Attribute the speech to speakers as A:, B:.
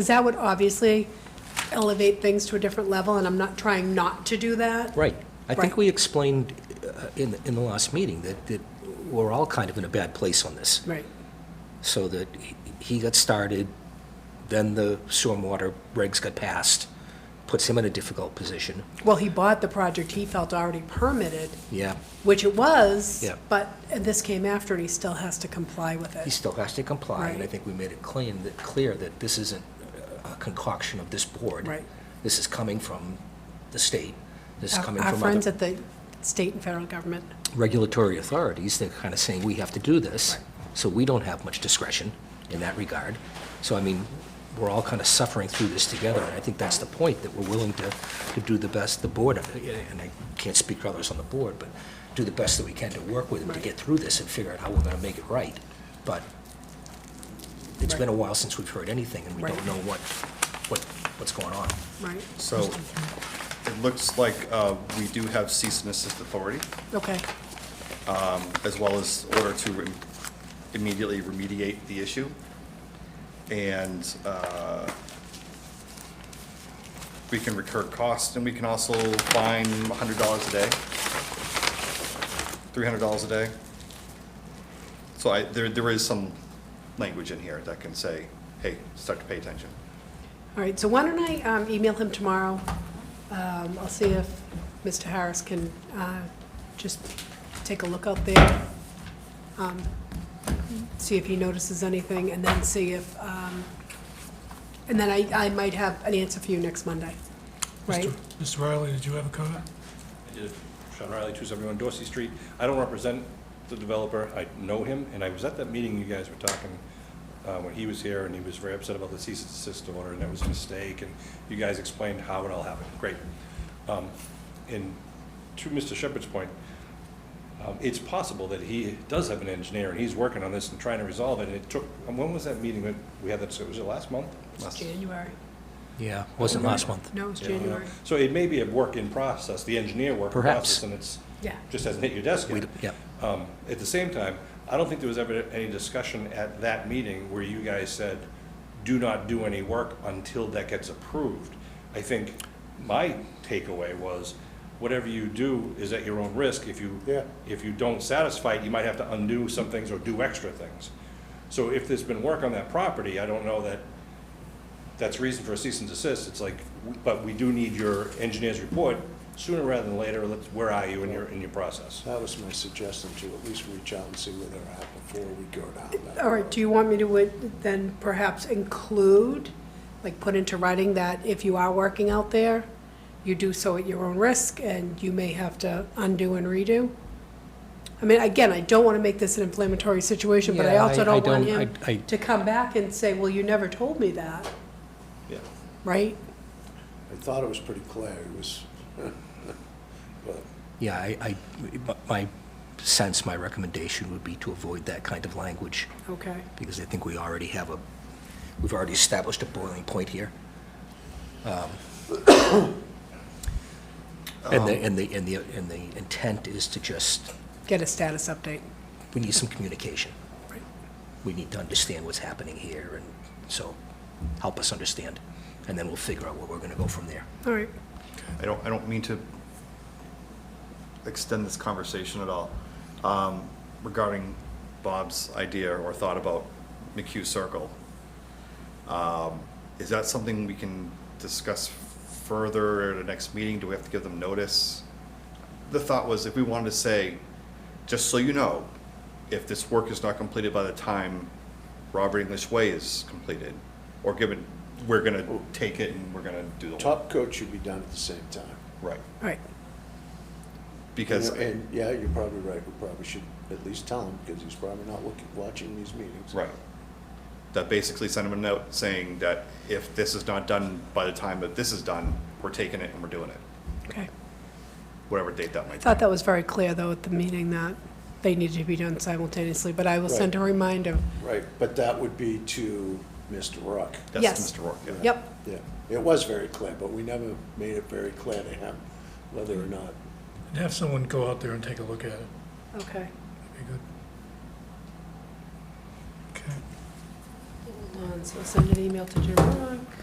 A: Because that would obviously elevate things to a different level, and I'm not trying not to do that.
B: Right. I think
A: Right.
B: we explained uh, in, in the last meeting that, that we're all kind of in a bad place on this.
A: Right,
B: So that he- he got started, then the stormwater regs got passed, puts him in a difficult position.
A: well, he bought the project he felt already permitted,
B: Yeah,
A: which it was.
B: Yeah.
A: But this came after, and he still has to comply with
B: he
A: it.
B: still has to comply, and I
A: Right.
B: think we made it clean, that, clear that this isn't a concoction of this board.
A: Right.
B: This is coming from the state. This is
A: Our-
B: coming
A: Our
B: from
A: friends
B: other
A: at the state and federal government,
B: regulatory authorities, they're kind of saying, we have to do this, so we don't have much discretion in that regard. So, I mean, we're all kind of suffering through this together, and I think that's the point, that we're willing to, to do the best, the board, uh, and I can't speak for others on the board, but do the best that we can to work with them to
A: Right.
B: get through this and figure out how we're going to make it right. But it's been a while since we've heard anything, and we
A: Right.
B: don't know what, what, what's going on.
A: right?
C: So it looks like uh, we do have cease and assist authority,
A: Okay,
C: as well as order to re- immediately remediate the issue. And uh, we can recur costs, and we can also fine $100 a day, $300 a day. So I, there, there is some language in here that can say, hey, start to pay attention.
A: all right, so why don't I um, email him tomorrow? Um, I'll see if Mr. Harris can uh, just take a look out there, um, see if he notices anything, and then see if, um, and then I I might have an answer for you next Monday, right?
D: Mr. Riley, did you have a comment?
E: I did it. Sean Riley, 271 Dorsey Street. I don't represent the developer, I know him, and I was at that meeting you guys were talking uh, when he was here, and he was very upset about the cease and desist order, and that was a mistake, and you guys explained how it all happened. Great. Um, And to Mr. Shepherd's point, um, it's possible that he does have an engineer, and he's working on this and trying to resolve it, and it took, um, when was that meeting that we had that, so was it last month?
A: It's January.
B: Yeah, wasn't last month.
A: No, it's
E: Yeah, you know.
A: January.
E: So it may be a work in process, the engineer work in
B: Perhaps.
E: process, and it's,
A: Yeah.
E: just hasn't hit your desk
B: We-
E: yet.
B: yeah.
E: Um, At the same time, I don't think there was ever any discussion at that meeting where you guys said, do not do any work until that gets approved. I think my takeaway was, whatever you do is at your own risk. If you, if you don't satisfy it, you might have to undo some things or do extra things. So if there's been work on that property, I don't know that that's reason for a cease and desist, it's like, but we do need your engineer's report sooner rather than later, let's, where are you in your, in your process?
F: That was my suggestion, to at least reach out and see where they're at before we go down that.
A: All right, do you want me to uh, then perhaps include, like, put into writing that if you are working out there, you do so at your own risk, and you may have to undo and redo? I mean, again, I don't want to make this an inflammatory situation, but I
B: Yeah,
A: also
B: I- I
A: don't want
B: don't-
A: him
B: I- I-
A: to come back and say, well, you never told me that,
E: Yeah.
A: right?
F: I thought it was pretty clear, it was, but
B: Yeah, I, I- my sense, my recommendation would be to avoid that kind of language,
A: Okay,
B: because I think we already have a, we've already established a boiling point here. Um, And the, and the, and the, and the intent is to just,
A: get a status update.
B: we need some communication.
A: Right.
B: We need to understand what's happening here, and so help us understand, and then we'll figure out where we're gonna go from there.
A: All right,
C: I don't, I don't mean to extend this conversation at all um, regarding Bob's idea or thought about McHugh Circle. Um, Is that something we can discuss further at a next meeting? Do we have to give them notice? The thought was if we wanted to say, just so you know, if this work is not completed by the time Robert English Way is completed, or given, we're gonna take it and we're gonna do the.
F: top coat should be done at the same time.
C: Right.
A: all right,
C: Because,
F: You know, And, yeah, you're probably right, we probably should at least tell him, because he's probably not looking, watching these meetings.
C: right, that basically sent him a note saying that if this is not done by the time that this is done, we're taking it and we're doing it,
A: okay.
C: whatever date that might be.
A: Thought that was very clear, though, at the meeting, that they needed to be done simultaneously, but I will send a reminder.
F: Right, but that would be to Mr. Rock.
A: Yes.
C: That's Mr. Rourke, yeah.
A: Yep,
F: Yeah, it was very clear, but we never made it very clear to him whether or not.
D: And have someone go out there and take a look at it.
A: okay.
D: That'd be good. Okay.
A: Um, And so send an email to Jim Rock.